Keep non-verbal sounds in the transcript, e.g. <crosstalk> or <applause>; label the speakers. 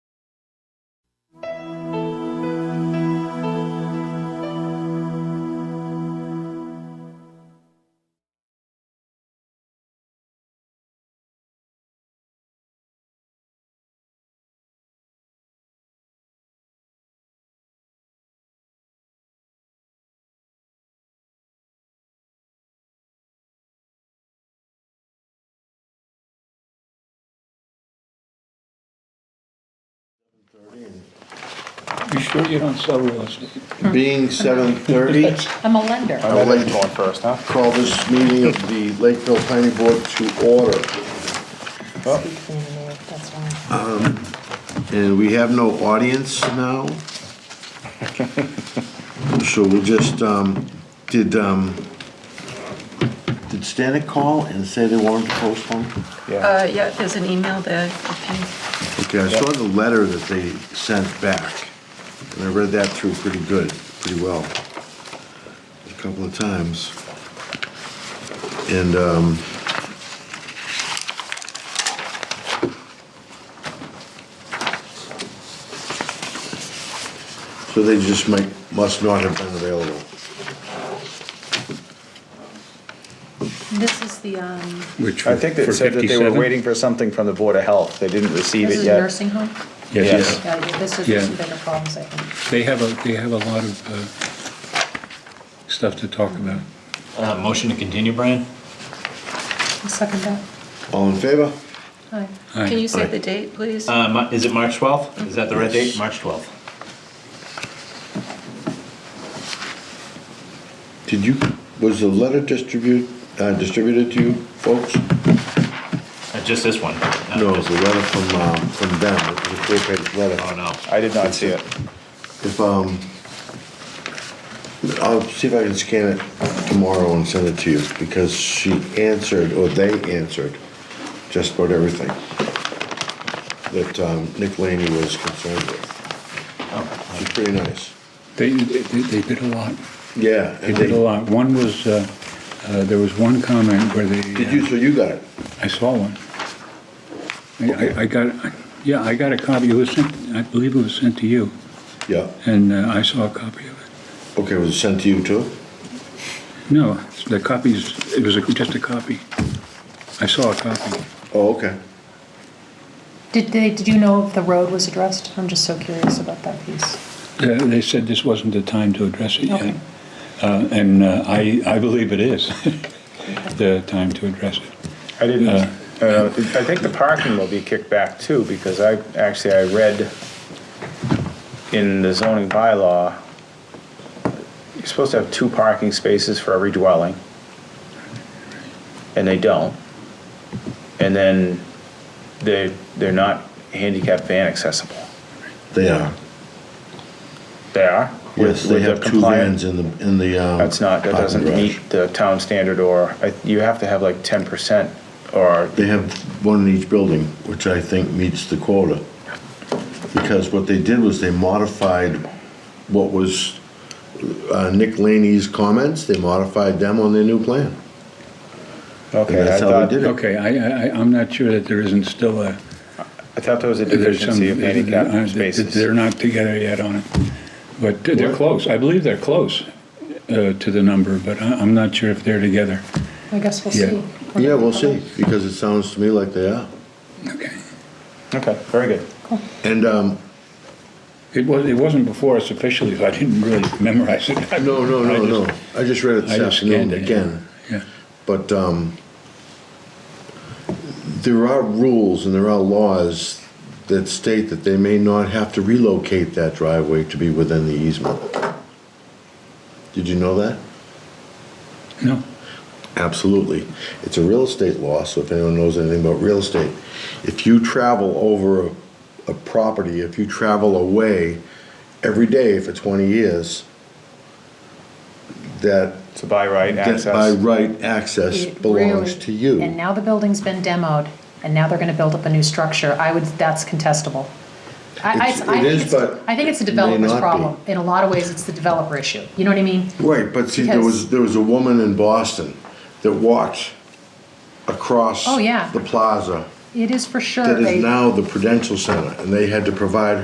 Speaker 1: You sure you don't sell real estate?
Speaker 2: Being seven thirty,
Speaker 3: I'm a
Speaker 2: Uh,
Speaker 3: lender.
Speaker 4: I'll let you go on first, huh?
Speaker 2: call this meeting of the Lakeville Planning Board to order.
Speaker 3: That's why.
Speaker 2: Um, And we have no audience now. So we'll just, um, did, um, did Stanek call and say they wanted to postpone?
Speaker 4: Yeah.
Speaker 5: Uh, yeah, there's an email there, if
Speaker 2: Okay, I saw the letter that they sent back, and I read that through pretty good, pretty well, a couple of times. And, um, so they just might, must not have been available.
Speaker 3: This is the, um,
Speaker 1: Which
Speaker 4: I think they
Speaker 1: for
Speaker 4: said that they were
Speaker 1: 57?
Speaker 4: waiting for something from the Board of Health. They didn't receive
Speaker 3: this
Speaker 4: it
Speaker 3: is
Speaker 4: yet.
Speaker 3: nursing home?
Speaker 1: Yes,
Speaker 3: Yeah, yeah, this is
Speaker 1: Yeah.
Speaker 3: some bigger problems, I think.
Speaker 1: they have a, they have a lot of uh, stuff to talk about.
Speaker 6: Uh, motion to continue, Brian?
Speaker 3: I'll Second that.
Speaker 2: All in favor?
Speaker 3: Hi.
Speaker 5: you, can
Speaker 1: Aye.
Speaker 5: you say the date, please?
Speaker 6: Uh, Ma- is it March 12th? Is that the right
Speaker 2: Yes.
Speaker 6: date? March 12th.
Speaker 2: Did you, was the letter distribute, uh, distributed to you folks?
Speaker 6: Uh, just this one? Uh,
Speaker 2: No, it was
Speaker 6: just-
Speaker 2: a letter from, um, from them, it was a four-page letter.
Speaker 6: Oh, no.
Speaker 4: I did not see it.
Speaker 2: If, um, I'll see if I can scan it tomorrow and send it to you, because she answered, or they answered, just about everything that, um, Nick Laney was concerned with.
Speaker 6: Oh.
Speaker 2: She's pretty nice.
Speaker 1: They, they they did a lot.
Speaker 2: Yeah.
Speaker 1: They
Speaker 2: and
Speaker 1: did a lot. One was, uh, uh, there was one comment where they. uh,
Speaker 2: Did you, so you got it?
Speaker 1: I saw one. I- I, I got, yeah, I got a copy. It was sent, I believe it was sent to you,
Speaker 2: Yeah.
Speaker 1: and uh, I saw a copy of it.
Speaker 2: Okay, was it sent to you too?
Speaker 1: No, the copies, it was a- just a copy. I saw a copy.
Speaker 2: Oh, okay.
Speaker 3: Did they, did you know if the road was addressed? I'm just so curious about that piece.
Speaker 1: Uh, They said this wasn't the time to address it yet.
Speaker 3: Okay.
Speaker 1: Uh, And uh, I, I believe it is <laughs> the time to address it.
Speaker 4: I didn't, uh, I think the parking will be kicked back too, because I, actually, I read in the zoning bylaw, you're supposed to have two parking spaces for every dwelling, and they don't. And then they, they're not handicap van accessible.
Speaker 2: They are.
Speaker 4: They are? with-
Speaker 2: Yes, they
Speaker 4: with the
Speaker 2: have two
Speaker 4: compliant-
Speaker 2: vans in the, in the, um.
Speaker 4: That's not, that
Speaker 2: parking
Speaker 4: doesn't
Speaker 2: garage.
Speaker 4: meet the town standard, or, I- you have to have like ten percent, or
Speaker 2: They have one in each building, which I think meets the quota. Because what they did was they modified what was uh, Nick Laney's comments, they modified them on their new plan.
Speaker 4: Okay,
Speaker 2: And
Speaker 4: I
Speaker 2: that's how they
Speaker 4: thought,
Speaker 2: did it.
Speaker 1: Okay, I, I, I- I'm not sure that there isn't still a,
Speaker 4: I thought there was a
Speaker 1: there's some.
Speaker 4: deficiency of handicap
Speaker 1: uh, that- that They're
Speaker 4: spaces.
Speaker 1: not together yet on it. But they're close. I believe they're close uh, to the number, but I- I'm not sure if they're together.
Speaker 3: I guess we'll
Speaker 1: Yeah.
Speaker 3: see.
Speaker 2: Yeah, we'll see, because it sounds to me like they are.
Speaker 1: Okay.
Speaker 4: Okay, very good.
Speaker 2: And, um,
Speaker 1: It was, it wasn't before us officially, so I didn't really memorize it.
Speaker 2: no, no,
Speaker 1: I
Speaker 2: no,
Speaker 1: just-
Speaker 2: no, I just read it
Speaker 1: I
Speaker 2: this
Speaker 1: just scanned
Speaker 2: afternoon
Speaker 1: it.
Speaker 2: again.
Speaker 1: Yeah.
Speaker 2: But um, there are rules and there are laws that state that they may not have to relocate that driveway to be within the easement. Did you know that?
Speaker 1: No.
Speaker 2: Absolutely. It's a real estate law, so if anyone knows anything about real estate, if you travel over a- a property, if you travel away every day for 20 years, that,
Speaker 4: So by right
Speaker 2: that by
Speaker 4: access,
Speaker 2: right access
Speaker 3: It
Speaker 2: belongs
Speaker 3: really-
Speaker 2: to you.
Speaker 3: And now the building's been demoed, and now they're gonna build up a new structure. I would, that's contestable. I, I, I
Speaker 2: It's- it
Speaker 3: think
Speaker 2: is,
Speaker 3: it's,
Speaker 2: but
Speaker 3: I think it's a
Speaker 2: it may
Speaker 3: developer's
Speaker 2: not be.
Speaker 3: problem. In a lot of ways, it's the developer issue. You know what I mean?
Speaker 2: Right, but see, there
Speaker 3: Because-
Speaker 2: was, there was a woman in Boston that walked across
Speaker 3: Oh, yeah.
Speaker 2: the plaza
Speaker 3: It is for sure.
Speaker 2: that
Speaker 3: they-
Speaker 2: is now the Prudential Center, and they had to provide